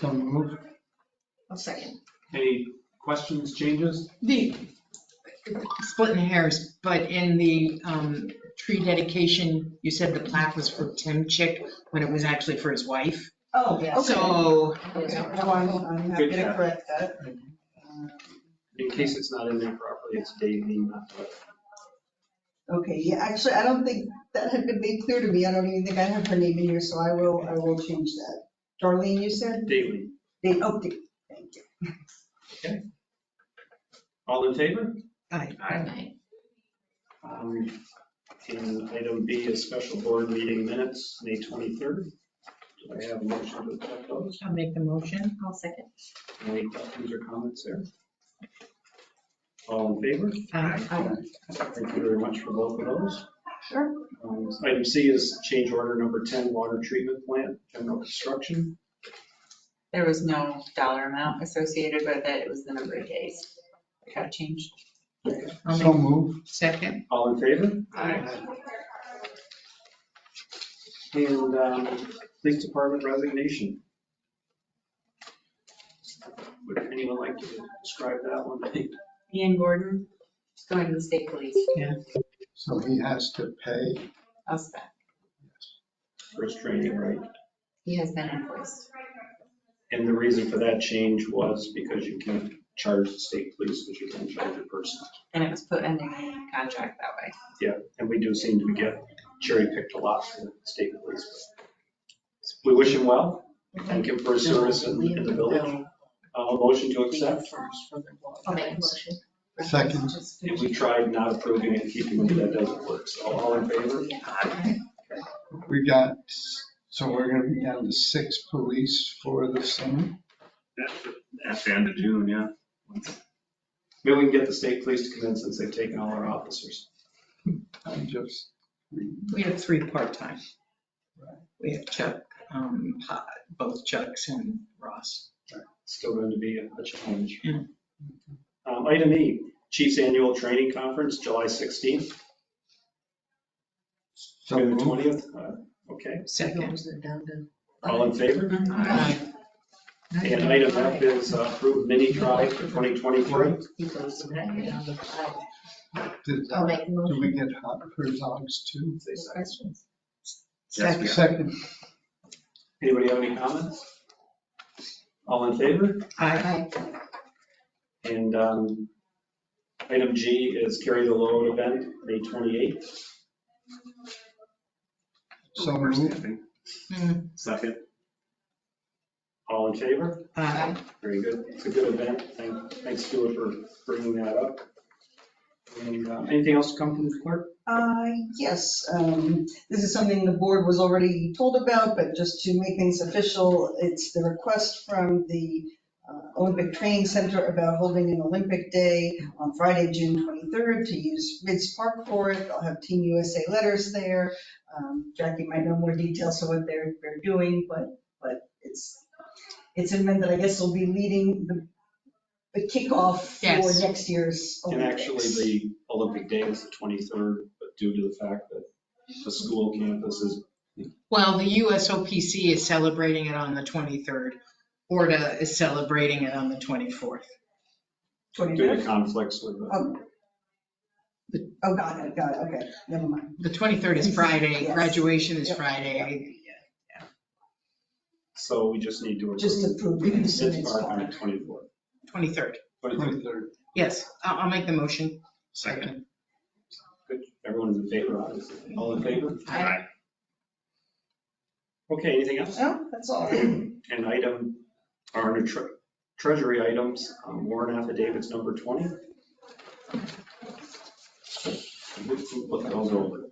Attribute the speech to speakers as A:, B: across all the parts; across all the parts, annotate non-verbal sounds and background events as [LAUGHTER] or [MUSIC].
A: So moved.
B: I'll second.
C: Any questions, changes?
D: The, splitting hairs, but in the um, tree dedication, you said the plaque was for Tim Chick when it was actually for his wife.
B: Oh, yeah.
D: So,
B: Okay.
E: No, I'm, I'm happy
C: Good
E: to
C: catch.
E: correct that. Uh,
C: In case it's not in there properly, it's Dave Lima.
E: Okay, yeah, actually, I don't think that had been made clear to me. I don't even think I have her name in here, so I will, I will change that. Darlene, you said?
C: Daily.
E: They, oh, they- thank you.
C: All in favor?
D: aye.
B: Aye.
C: Um, And item B is special board meeting minutes, May 23rd. Do I have a motion to accept those?
D: I'll make the motion.
B: I'll second.
C: Any questions or comments there? All in favor?
D: Aye.
C: Thank you very much for both of those.
B: Sure.
C: Um, Item C is change order number 10, water treatment plant, general construction.
F: There was no dollar amount associated with it, it was the number of days. It got changed.
D: I'll
A: So
D: make
A: moved.
D: second.
C: All in favor?
A: Aye.
C: And um, police department resignation. Would anyone like to describe that one?
F: Ian Gordon, he's going to the state police,
A: So he has to pay.
F: us back.
C: [LAUGHS] First training, right?
F: He has been invoiced.
C: And the reason for that change was because you can charge the state police, but you can't charge a person.
F: And it was put in the contract that way.
C: And we do seem to get cherry picked a lot for the state police. We wish him well, thank him for his service in in the village. Uh, A motion to accept.
B: I'll make a motion.
A: Second.
C: And we tried not approving it, keeping it, that doesn't work. So all in favor?
A: We got, so we're going to be down to six police for the summer.
G: At the end of June, yeah.
C: Maybe we can get the state police to come in since they've taken all our officers.
A: I just,
D: We have three part-time. We have Chuck, um, Po- both Chucks and Ross.
C: Still going to be a a challenge.
D: Yeah.
C: Um, Item E, Chief's Annual Training Conference, July 16th
A: so
C: through the
A: moved.
C: 20th. Uh, Okay,
D: Second.
C: all in favor?
E: Mm-hmm.
D: Aye.
C: And item F is uh, approve mini drive for 2023.
B: He goes to that, you know,
A: Did
B: I'll
A: that-
B: make a
F: Oh,
A: do
B: motion.
A: we get hot for dogs too?
C: Say so.
B: Questions?
G: Yes, we are.
A: Second,
C: Anybody have any comments? All in favor?
D: Aye.
B: Aye.
C: And um, item G is carry the load event, May 28th.
A: so
G: We're
A: moved.
G: standing.
D: Mm,
G: Second.
C: All in favor?
D: Aye.
C: Very good. It's a good event. Thank- Thanks, Stuart, for bringing that up. And uh, anything else to come from the clerk?
E: Uh, yes, um, this is something the board was already told about, but just to make things official, it's the request from the uh, Olympic Training Center about holding an Olympic Day on Friday, June 23rd, to use Ridge Park for it. They'll have Team USA letters there. Um, Jackie might know more details of what they're, they're doing, but, but it's, it's an event that I guess will be leading the the kickoff for
D: Yes.
E: next year's
C: And
E: Olympics.
C: actually, the Olympic Day is the 23rd, but due to the fact that the school campus is,
D: Well, the USOPC is celebrating it on the 23rd. Orta is celebrating it on the 24th.
E: 29th.
C: due to conflicts with the
E: Oh, Oh, got it, got it, okay, never mind.
D: The 23rd is Friday,
E: Yes.
D: graduation is
E: Yep.
D: Friday.
C: So we just need to.
E: Just approve it.
C: It's part on the 24th.
D: 23rd.
C: 23rd.
A: 23rd.
D: Yes, I'll, I'll make the motion.
G: Second.
C: Good. Everyone's in favor, obviously. All in favor?
D: Aye.
G: Aye.
C: Okay, anything else?
E: No, that's all.
C: And item, our new tre- treasury items, um, warrant affidavits number 20. Look those over.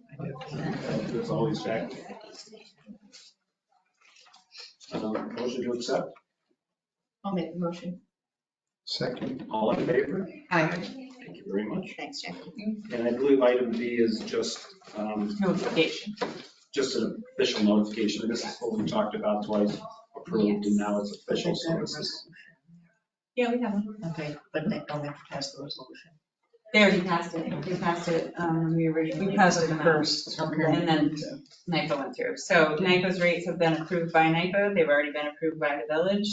C: There's always back. Um, Motion to accept,
B: I'll make a motion.
A: Second,
C: all in favor?
D: Aye.
C: Thank you very much.
B: Thanks, Jackie.
C: And I believe item B is just, um,
F: Notification.
C: just an official notification. This is what we talked about twice, approved, and now it's official, so this is
F: Yeah, we have one.
B: Okay, but they don't have to pass the resolution.
F: They already passed it, we passed it, um, we originally.
E: We passed
F: put
E: it
F: them out.
E: first.
F: And then NIPA went through. So NIPA's rates have been approved by NIPA. They've already been approved by the village.